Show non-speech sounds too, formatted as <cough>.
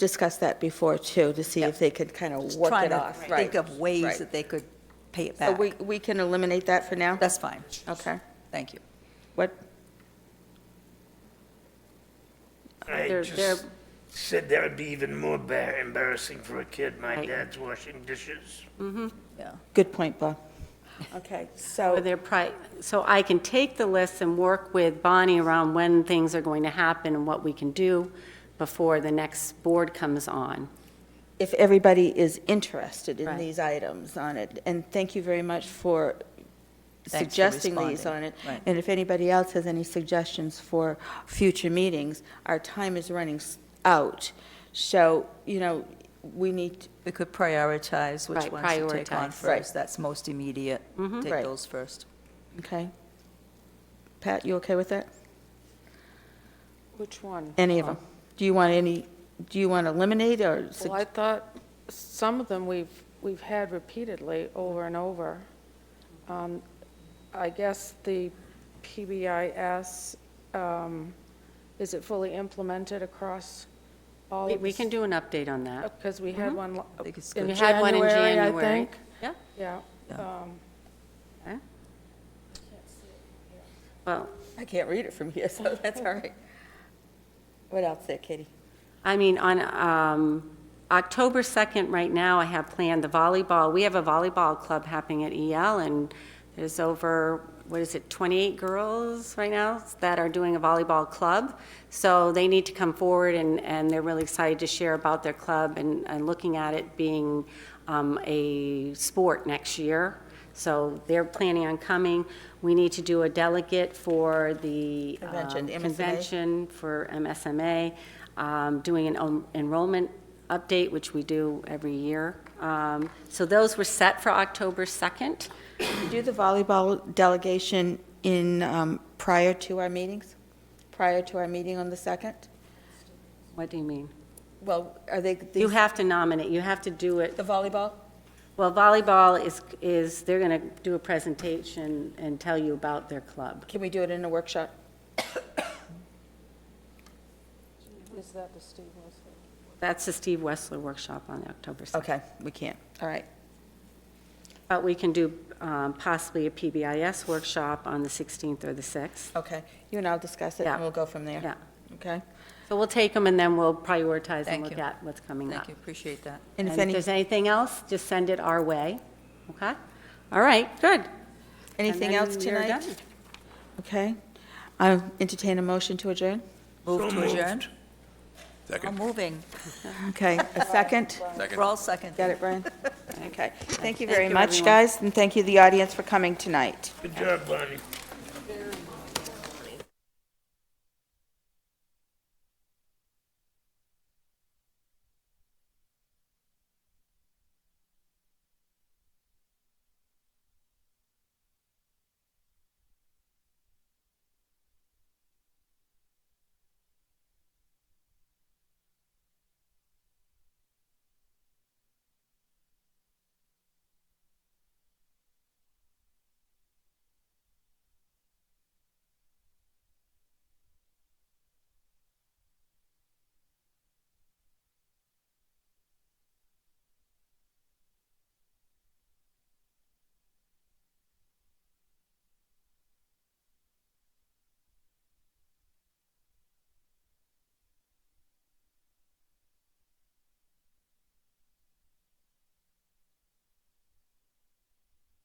discussed that before too, to see if they could kind of work Trying it to off. think of ways right. that they could pay it So back. we, we can eliminate that for now? That's fine. Okay. Thank you. What, I They're- just they're- said that would be even more bar- embarrassing for a kid. My Right. dad's washing dishes. Yeah. good point, Bob. Okay, so. Or their pri, so I can take the list and work with Bonnie around when things are going to happen and what we can do before the next board comes on. if everybody is interested in Right. these items on it. And thank you very much for for suggesting these on responding. it. Right. And if anybody else has any suggestions for future meetings, our time is running s- out. So, you know, we need, We could prioritize which Right, ones to take on prioritize. Right. first. That's most immediate. Take Mm-hmm. Right. those first. okay? Pat, you okay with that? Which one? Any of them? Do you want any, do you want to eliminate or? sug- Well, I thought some of them we've, we've had repeatedly over and over. Um, I guess the PBIS, um, is it fully implemented across all We of the? we can do Mm-hmm. an update on that. Because we had one lo- think it's in good. We had one in January, I January. think. Yeah. Yeah. Um, Well, I can't read it from here, so <laughs> that's all right. What else there, Katie? I mean, on um, October 2nd, right now, I have planned the volleyball. We have a volleyball club happening at EL, and there's over, what is it, 28 girls right now that are doing a volleyball club. So they need to come forward, and, and they're really excited to share about their club and, and looking at it being um, a sport next year. So they're planning on coming. We need to do a delegate for the um, Convention, MSMA. convention for MSMA, um, doing an en- enrollment update, which we do every year. Um, So those were set for October 2nd. Do the volleyball delegation in, um, prior to our meetings? Prior to our meeting on the 2nd? What do you mean? Well, are they, You these- have to nominate, you have to do it. the volleyball? Well, volleyball is, is, they're going to do a presentation and tell you about their club. Can we do it in a workshop? Is that the Steve Wilson? That's the Steve Wessler workshop on October 2nd. Okay, we can't. All right. But we can do um, possibly a PBIS workshop on the 16th or the 6th. Okay. You and I'll discuss it, Yeah. and we'll go from there. Yeah. Okay? So we'll take them, and then we'll prioritize and Thank look you. at what's coming up. Thank you, appreciate that. And if And if any, there's anything else, just send it our way, okay? All right, good. anything else tonight? Okay. I'll entertain a motion to adjourn. Move to adjourn? I'm Second. moving. Okay, a second? Second. We're all second. Got it, <laughs> Brian? Okay. Thank you Thank very you, much, everyone. guys, and thank you, the audience, for coming tonight. Good job, Bonnie.